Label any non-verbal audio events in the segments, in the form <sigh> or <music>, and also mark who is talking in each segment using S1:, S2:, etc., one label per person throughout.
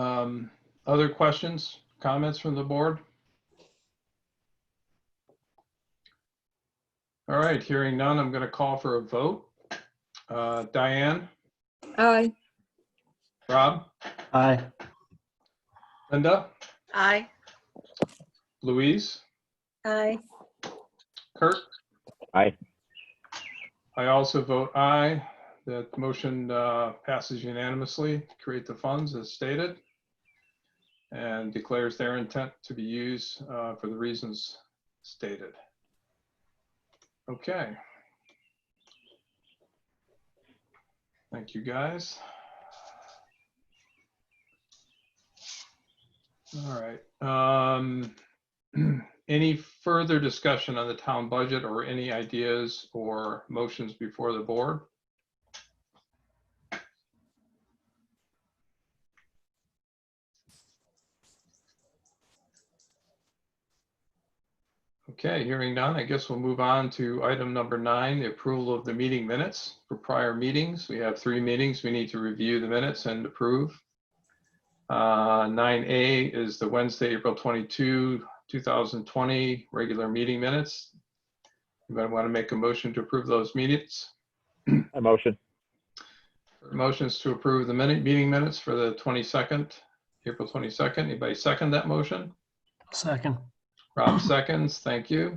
S1: Um, Other questions, comments from the board? All right, hearing none, I'm going to call for a vote. Uh, Diane,
S2: Aye.
S1: Rob,
S3: Aye.
S1: Linda,
S4: Aye.
S1: Louise,
S2: Aye.
S1: Kirk?
S3: Aye.
S1: I also vote aye. That motion uh, passes unanimously, create the funds as stated, and declares their intent to be used uh, for the reasons stated. Okay. Thank you, guys. All right. um, <clears throat> Any further discussion on the town budget or any ideas or motions before the board? Okay, hearing none, I guess we'll move on to item number nine, the approval of the meeting minutes for prior meetings. We have three meetings. We need to review the minutes and approve. Uh, 9A is the Wednesday, April 22, 2020 regular meeting minutes. Anybody want to make a motion to approve those minutes?
S3: A motion.
S1: Motions to approve the minute, meeting minutes for the 22nd, April 22nd. Anybody second that motion?
S3: Second.
S1: Rob seconds, thank you.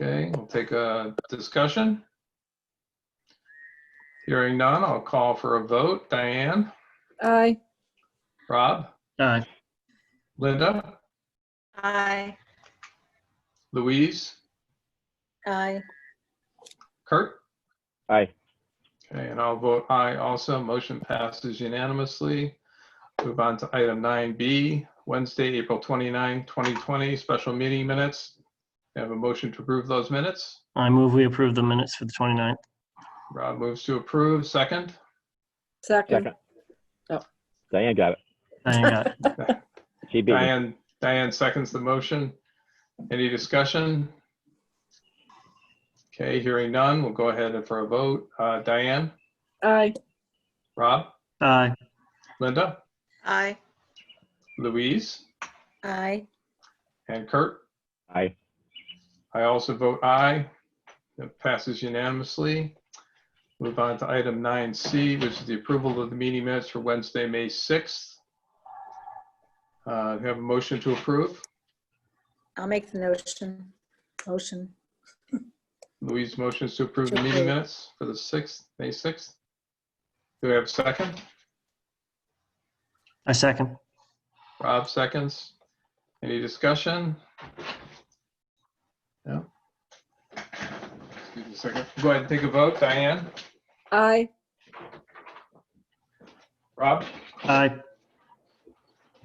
S1: Okay, we'll take a discussion. Hearing none, I'll call for a vote. Diane,
S2: Aye.
S1: Rob,
S3: Aye.
S1: Linda,
S4: Aye.
S1: Louise,
S2: Aye.
S1: Kurt?
S3: Aye.
S1: Okay, and I'll vote aye also. Motion passes unanimously. Move on to item 9B, Wednesday, April 29, 2020, special meeting minutes. I Have a motion to approve those minutes.
S5: I move we approve the minutes for the 29th.
S1: Rob moves to approve. Second,
S2: Second.
S3: Second.
S2: Oh.
S3: Diane got it.
S5: Diane got it.
S3: She beat me.
S1: Diane, Diane seconds the motion. Any discussion? Okay, hearing none, we'll go ahead and for a vote. Uh, Diane,
S2: Aye.
S1: Rob,
S5: Aye.
S1: Linda,
S4: Aye.
S1: Louise,
S2: Aye.
S1: and Kurt?
S3: Aye.
S1: I also vote aye. That passes unanimously. Move on to item 9C, which is the approval of the meeting minutes for Wednesday, May 6th. Uh, do you Have a motion to approve.
S2: I'll make the notion. Motion.
S1: Louise motions to approve the
S2: To
S1: meeting
S2: approve.
S1: minutes for the 6th, May 6th. Do we have a second?
S5: I second.
S1: Rob seconds. Any discussion? No? Excuse me a second. Go ahead and take a vote. Diane?
S2: Aye.
S1: Rob?
S5: Aye.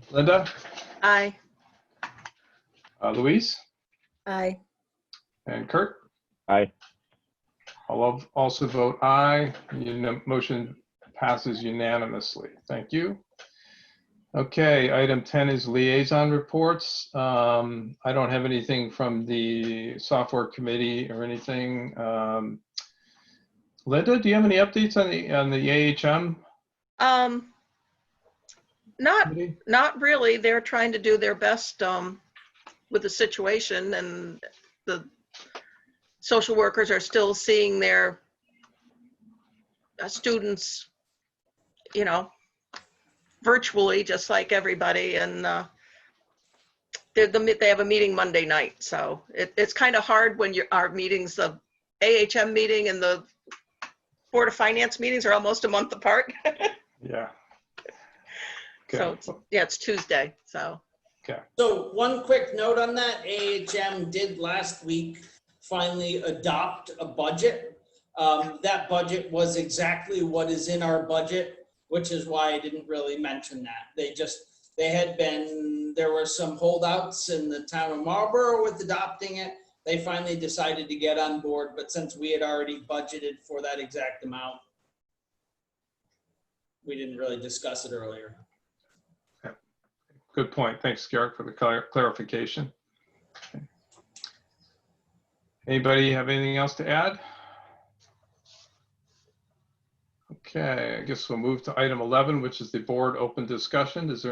S1: Linda?
S4: Aye.
S1: Uh, Louise?
S2: Aye.
S1: And Kurt?
S3: Aye.
S1: I'll al- also vote aye. Unan- Motion passes unanimously. Thank you. Okay, item 10 is liaison reports. Um, I don't have anything from the software committee or anything. Um, Linda, do you have any updates on the, on the AHM
S4: Um, not,
S1: committee?
S4: not really. They're trying to do their best, um, with the situation and the social workers are still seeing their uh, students, you know, virtually, just like everybody. And, uh, they're the, me- they have a meeting Monday night. So it, it's kind of hard when your, our meetings, the AHM meeting and the Board of Finance meetings are almost a month apart.
S1: Yeah.
S4: So
S1: Okay,
S4: it's- Yeah, it's Tuesday, so.
S6: So one quick note on that, AHM did last week finally adopt a budget. Um, That budget was exactly what is in our budget, which is why I didn't really mention that. They just, they had been, there were some holdouts in the town of Marlborough with adopting it. They finally decided to get on board, but since we had already budgeted for that exact amount, we didn't really discuss it earlier.
S1: good point. Thanks, Garrett, for the clar- clarification. Okay. Anybody have anything else to add? Okay, I guess we'll move to item 11, which is the board open discussion. Is there